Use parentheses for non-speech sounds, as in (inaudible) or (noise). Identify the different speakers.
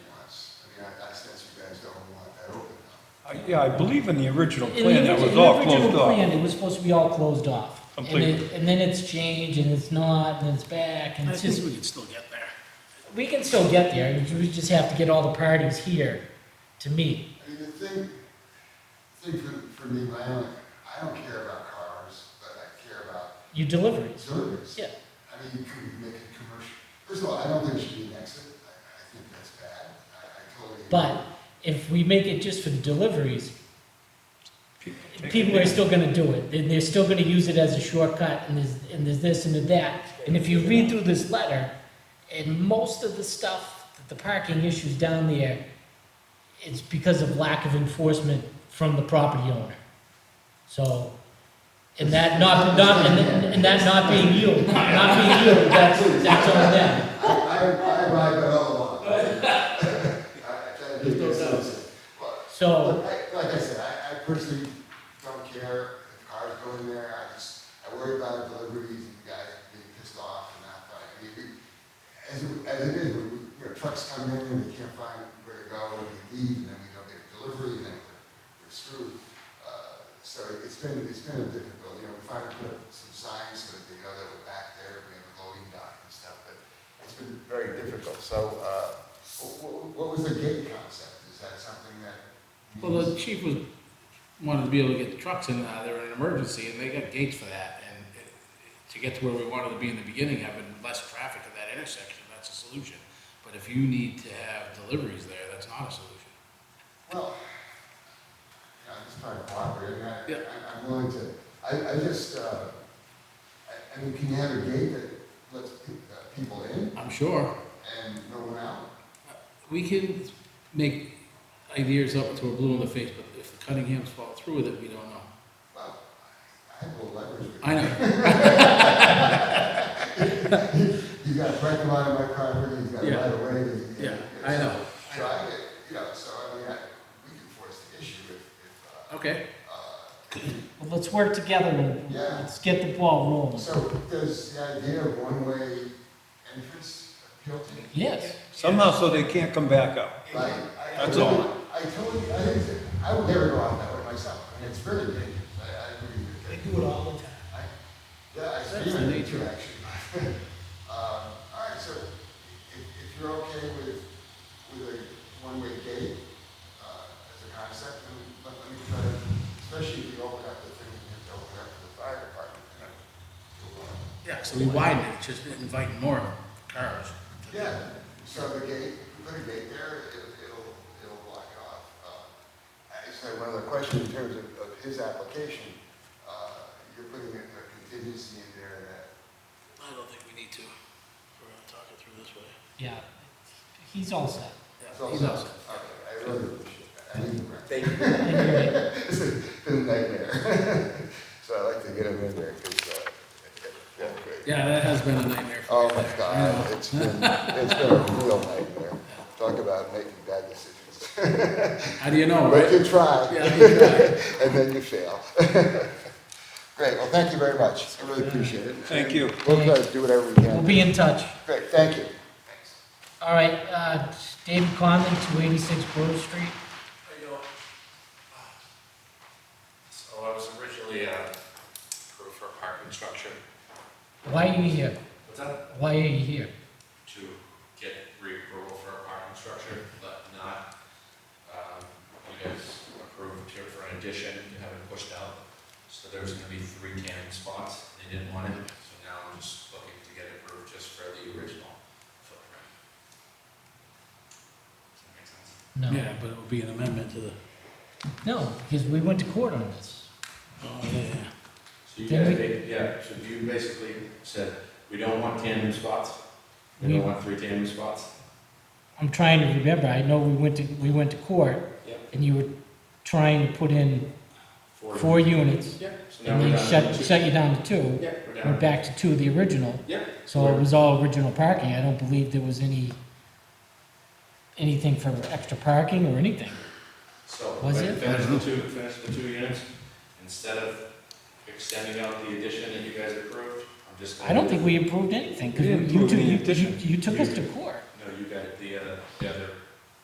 Speaker 1: I- Yeah, I believe in the original
Speaker 2: In the
Speaker 1: plan, that
Speaker 2: origi-
Speaker 1: was all
Speaker 2: in the
Speaker 1: closed
Speaker 2: original plan,
Speaker 1: off.
Speaker 2: It was supposed to be all closed off. And it-
Speaker 1: Completely.
Speaker 2: And then it's changed, and it's not, and it's back, and
Speaker 3: I
Speaker 2: it's just,
Speaker 3: think we can still get there.
Speaker 2: we can still get there, we ju- we just have to get all the parties here to meet.
Speaker 4: I mean, the thing, thing for, for me, my own, I don't care about cars, but I care about
Speaker 2: Your deliveries,
Speaker 4: service.
Speaker 2: yeah.
Speaker 4: I mean, you could make it commercial. First of all, I don't think it should be an exit. I, I think that's bad. I, I totally.
Speaker 2: But if we make it just for the deliveries, people are still gonna do it, They- they're still gonna use it as a shortcut, and there's, and there's this and there's that. And if you read through this letter, and most of the stuff, that the parking issues down there, it's because of lack of enforcement from the property owner. So, and that not, not, and that- and that not being you, not being you, that's, that's on them.
Speaker 4: I, I, I ride by all along. (laughs) I, I try to be a good citizen. Well,
Speaker 2: So,
Speaker 4: Look, I- Like I said, I, I personally don't care if cars go in there, I just, I worry about deliveries and guys being pissed off and that, but I mean, we- as, it- as it is, when, we- you know, trucks come in and we can't find where to go, and we leave, and then we don't get a delivery, and then we're, we're screwed. Uh, So it's been, it's been a difficult, you know, we finally put up some signs so that they know that we're back there, we have a loading dock and stuff, but it's been very difficult, so, uh, what, what was the gate concept? Is that something that?
Speaker 3: Well, the chief was, wanted to be able to get the trucks in and out of there in an emergency, and they got gates for that, and it- to get to where we wanted to be in the beginning, having less traffic at that intersection, that's a solution. But if you need to have deliveries there, that's not a solution.
Speaker 4: Well, yeah, I'm just trying to cooperate, and I,
Speaker 3: Yeah.
Speaker 4: I- I'm willing to, I, I just, uh, I, I mean, can you have a gate that lets pe- uh, people in
Speaker 3: I'm sure,
Speaker 4: and no one out?
Speaker 3: we can make ideas up until we're blue in the face, but if the Cunninghams follow through with it, we don't know.
Speaker 4: Well, I have a little leverage with
Speaker 3: I know,
Speaker 4: you. You've got a parking lot on my property, you've got
Speaker 3: Yeah.
Speaker 4: right away. and-
Speaker 3: yeah,
Speaker 4: and-
Speaker 3: I know,
Speaker 4: So I, get- you know, so I mean, I, we can force the issue if, if,
Speaker 3: okay.
Speaker 4: uh, uh,
Speaker 2: well, let's work together and
Speaker 4: Yeah.
Speaker 2: let's get the ball rolling.
Speaker 4: uh, so does the idea of one-way entrance appeal to you?
Speaker 2: Yes,
Speaker 1: Somehow, so they can't come back out.
Speaker 4: Right.
Speaker 1: That's all.
Speaker 4: I told you, I think, that- I would never go out that way myself, I mean, it's really dangerous, I, I agree with you.
Speaker 3: do it all the time.
Speaker 4: I- Yeah, I
Speaker 3: That's
Speaker 4: see
Speaker 3: the
Speaker 4: it
Speaker 3: nature.
Speaker 4: nature, actually. (laughs) Um, all right, so if, if you're okay with, with a one-way gate, uh, as a concept, then let, let me try, to- especially if you open up the thing, you have to open up to the fire department, you know. you'll, uh,
Speaker 3: Yeah, so we widen it, it's just inviting more cars.
Speaker 4: Yeah, so the gate, put a gate there, it- it'll, it'll block it off. Uh, I just had one other question in terms of, of his application. Uh, You're putting a a contingency in there that,
Speaker 3: I don't think we need to, we're gonna talk it through this way.
Speaker 2: yeah, he's all set.
Speaker 4: it's
Speaker 3: Yeah, he's
Speaker 4: also,
Speaker 3: awesome.
Speaker 4: okay, I really appreciate that. I need the rest.
Speaker 5: Thank you.
Speaker 4: (laughs) This has been a nightmare. (laughs) So I like to get him in there, because, uh, yeah, great.
Speaker 3: Yeah, that has been a nightmare. for
Speaker 4: Oh
Speaker 3: me.
Speaker 4: my
Speaker 3: Yeah.
Speaker 4: God, it's been, it's been a real nightmare. Talk about making bad decisions. (laughs)
Speaker 3: How do you know,
Speaker 4: But
Speaker 3: right?
Speaker 4: you try.
Speaker 3: Yeah, exactly.
Speaker 4: and then you fail. (laughs) Great, well, thank you very much. I really appreciate it.
Speaker 1: Thank you.
Speaker 4: We'll try to do whatever we
Speaker 2: We'll
Speaker 4: can.
Speaker 2: be in touch.
Speaker 4: Great, thank you.
Speaker 2: All right, uh, David Conlon, two eighty-six Grove Street.
Speaker 6: Uh, So I was originally uh, approved for a parking structure.
Speaker 2: Why are you here?
Speaker 6: What's that?
Speaker 2: Why are you here?
Speaker 6: To get reapproval for a parking structure, but not, um, you guys approved here for an addition, you haven't pushed out. So there's gonna be three tandem spots, they didn't want it, so now I'm just looking to get it approved just for the original footprint. Does that make sense?
Speaker 2: No,
Speaker 3: Yeah, but it would be an amendment to the,
Speaker 2: no, because we went to court on this.
Speaker 3: oh, yeah.
Speaker 6: So you
Speaker 2: Then
Speaker 6: guys,
Speaker 2: we-
Speaker 6: ba- yeah, so you basically said, we don't want tandem spots, we
Speaker 2: We-
Speaker 6: don't want three tandem spots.
Speaker 2: I'm trying to remember, I know we went to, we went to court
Speaker 6: Yep.
Speaker 2: and you were trying to put in
Speaker 6: Four.
Speaker 2: four units
Speaker 6: Yeah. So now
Speaker 2: and
Speaker 6: we're
Speaker 2: they
Speaker 6: down
Speaker 2: shut,
Speaker 6: to two.
Speaker 2: shut you down to two.
Speaker 6: Yeah, we're
Speaker 2: Went
Speaker 6: down.
Speaker 2: back to two of the original,
Speaker 6: Yeah.
Speaker 2: so it was all original parking. I don't believe there was any, anything for extra parking or anything.
Speaker 6: So,
Speaker 2: Was
Speaker 6: fin-
Speaker 2: it?
Speaker 6: finish the two, finish the two units, instead of extending out the addition that you guys approved, I'm just.
Speaker 2: I don't think we approved anything, because
Speaker 1: We didn't
Speaker 2: you
Speaker 1: approve
Speaker 2: two,
Speaker 1: any
Speaker 2: you, you
Speaker 1: additions.
Speaker 2: you took us to court.